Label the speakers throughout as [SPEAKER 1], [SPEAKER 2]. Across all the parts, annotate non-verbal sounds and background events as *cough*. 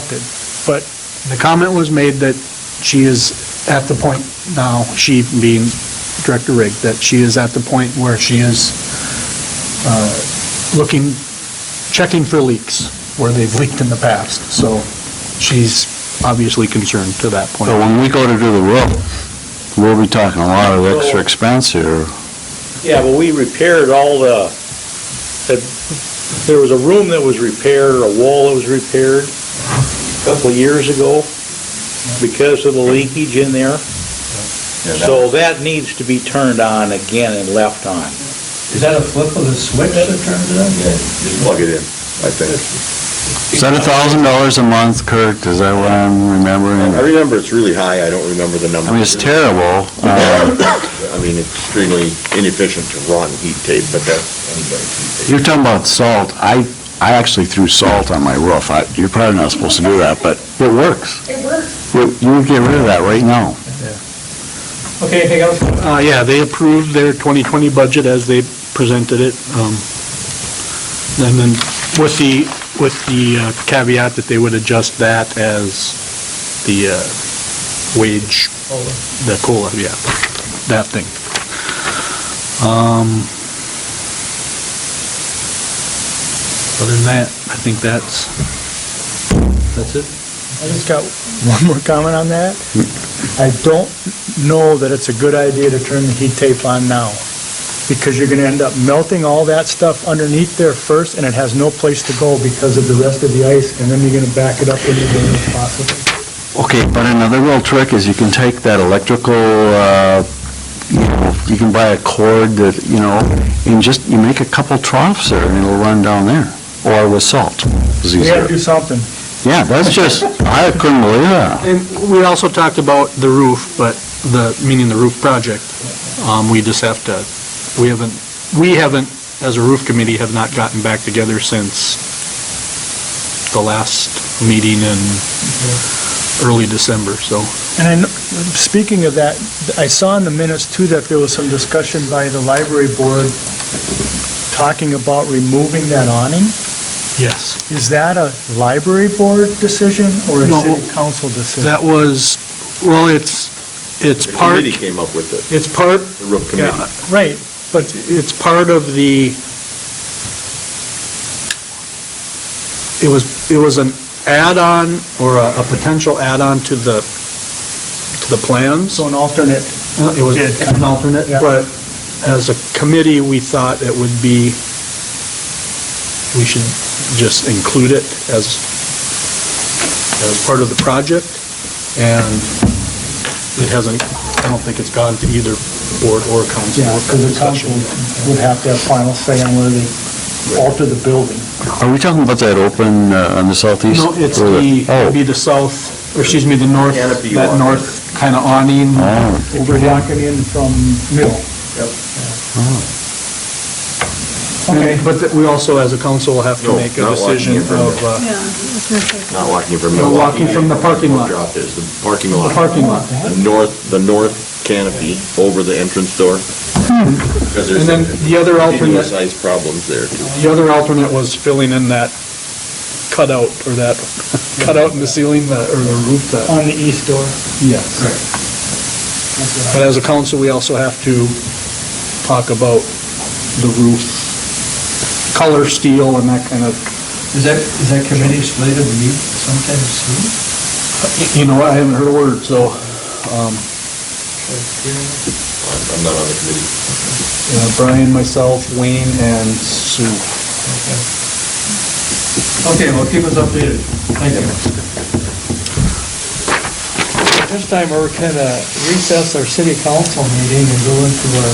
[SPEAKER 1] accepted. But the comment was made that she is at the point now, she being Director Rig, that she is at the point where she is uh, looking, checking for leaks where they've leaked in the past. So she's obviously concerned to that point.
[SPEAKER 2] So when we go to do the roof, we'll be talking a lot of extra expense here.
[SPEAKER 3] Yeah, but we repaired all the, the- there was a room that was repaired, or a wall that was repaired a couple of years ago because of the leakage in there. So that needs to be turned on again and left on.
[SPEAKER 4] Is that a flip of the switch that turns it on?
[SPEAKER 5] Just plug it in, I think.
[SPEAKER 2] Is that a thousand dollars a month, Kirk? Is that what I'm
[SPEAKER 5] I
[SPEAKER 2] remembering?
[SPEAKER 5] remember it's really high, I don't remember the number.
[SPEAKER 2] I mean, it's terrible. Uh,
[SPEAKER 5] I mean, it's extremely inefficient to run heat tape, but that's.
[SPEAKER 2] You're talking about salt. I, I actually threw salt on my roof. I- You're probably not supposed to do that, but it works.
[SPEAKER 6] It works.
[SPEAKER 2] You you would get rid of that right now.
[SPEAKER 4] Okay, anything else?
[SPEAKER 1] Uh, yeah, they approved their 2020 budget as they presented it. um, And then with the, with the uh, caveat that they would adjust that as the uh, wage, the COLA, yeah, that thing. Um, Other than that, I think that's, that's it.
[SPEAKER 7] I just got one more comment on that. I don't know that it's a good idea to turn the heat tape on now, because you're gonna end up melting all that stuff underneath there first, and it has no place to go because of the rest of the ice, and then you're gonna back it up into the possible.
[SPEAKER 2] Okay, but another real trick is you can take that electrical, uh, you know, you can buy a cord that, you know, and just, you make a couple troughs there and it'll run down there, or with salt. is
[SPEAKER 7] We gotta
[SPEAKER 2] easier.
[SPEAKER 7] do something.
[SPEAKER 2] Yeah, that's just, I couldn't believe that.
[SPEAKER 1] And we also talked about the roof, but the, meaning the roof project, um, we just have to, we haven't, we haven't, as a roof committee, have not gotten back together since the last meeting in early December, so.
[SPEAKER 7] And I, kn- speaking of that, I saw in the minutes too that there was some discussion by the library board talking about removing that awning.
[SPEAKER 1] Yes.
[SPEAKER 7] Is that a library board decision or a
[SPEAKER 1] No.
[SPEAKER 7] city council decision?
[SPEAKER 1] That was, well, it's, it's
[SPEAKER 5] The
[SPEAKER 1] part,
[SPEAKER 5] committee came up with it,
[SPEAKER 1] it's part,
[SPEAKER 5] the roof committee.
[SPEAKER 1] yeah,
[SPEAKER 7] Right,
[SPEAKER 1] but it's part of the, it was, it was an add-on or a, a potential add-on to the, to the plans. Uh,
[SPEAKER 7] so an alternate
[SPEAKER 1] It was an alternate,
[SPEAKER 7] Yeah.
[SPEAKER 1] but as a committee, we thought it would be, we should just include it as, as part of the project, and it hasn't, I don't think it's gone to either board or council.
[SPEAKER 7] Yeah, because the council would have to have final say on whether they alter the building.
[SPEAKER 2] Are we talking about that open uh, on the southeast?
[SPEAKER 1] No, it's
[SPEAKER 2] Or
[SPEAKER 1] the, it'd be
[SPEAKER 2] Oh,
[SPEAKER 1] the south, or excuse me, the north,
[SPEAKER 5] Canopy
[SPEAKER 1] that
[SPEAKER 5] awning.
[SPEAKER 1] north kind of awning.
[SPEAKER 2] Oh.
[SPEAKER 7] If you're walking in from Mill. Okay.
[SPEAKER 1] And- But that we also, as a council, will have to
[SPEAKER 5] No,
[SPEAKER 1] make a
[SPEAKER 5] not walking
[SPEAKER 1] decision
[SPEAKER 5] in from
[SPEAKER 1] of, uh,
[SPEAKER 6] Yeah. it's not safe.
[SPEAKER 5] Not walking from
[SPEAKER 1] No,
[SPEAKER 5] Milwaukee.
[SPEAKER 1] walking from the parking lot.
[SPEAKER 5] Drop is the parking lot.
[SPEAKER 1] The parking lot.
[SPEAKER 5] The north, the north canopy over the entrance door. Because
[SPEAKER 1] Hmm.
[SPEAKER 5] there's
[SPEAKER 1] And then the other alternate-
[SPEAKER 5] continuous ice problems there.
[SPEAKER 1] the other alternate was filling in that cutout, or that *laughs* cutout in the ceiling, that- or the roof, that,
[SPEAKER 7] On the east door.
[SPEAKER 1] yes. But as a council, we also have to talk about the roof, color steel and that kind of
[SPEAKER 4] Is that, is that committee slated to meet sometime soon?
[SPEAKER 1] You know, I haven't heard a word, so, um,
[SPEAKER 5] I'm not on the committee.
[SPEAKER 1] uh, Brian, myself, Wayne, and Sue.
[SPEAKER 4] Okay, well, keep us updated. Thank you.
[SPEAKER 8] At this time, we're going to recess our city council meeting and go into our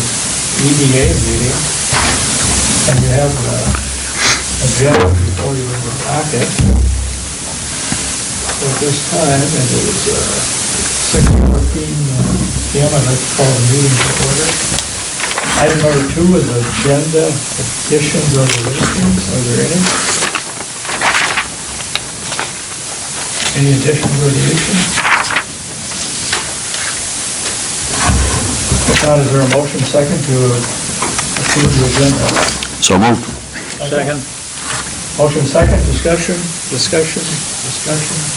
[SPEAKER 8] EDA meeting. And you have uh, a agenda before you in the packet. At this time, it is uh, 6:14 uh, PM, I'd like to call the meeting to order. Item number two is agenda additions or deletions. Are there any? Any additions or deletions? If not, is there a motion second to approve the agenda?
[SPEAKER 2] so moved.
[SPEAKER 8] Second. Motion second, discussion, discussion, discussion.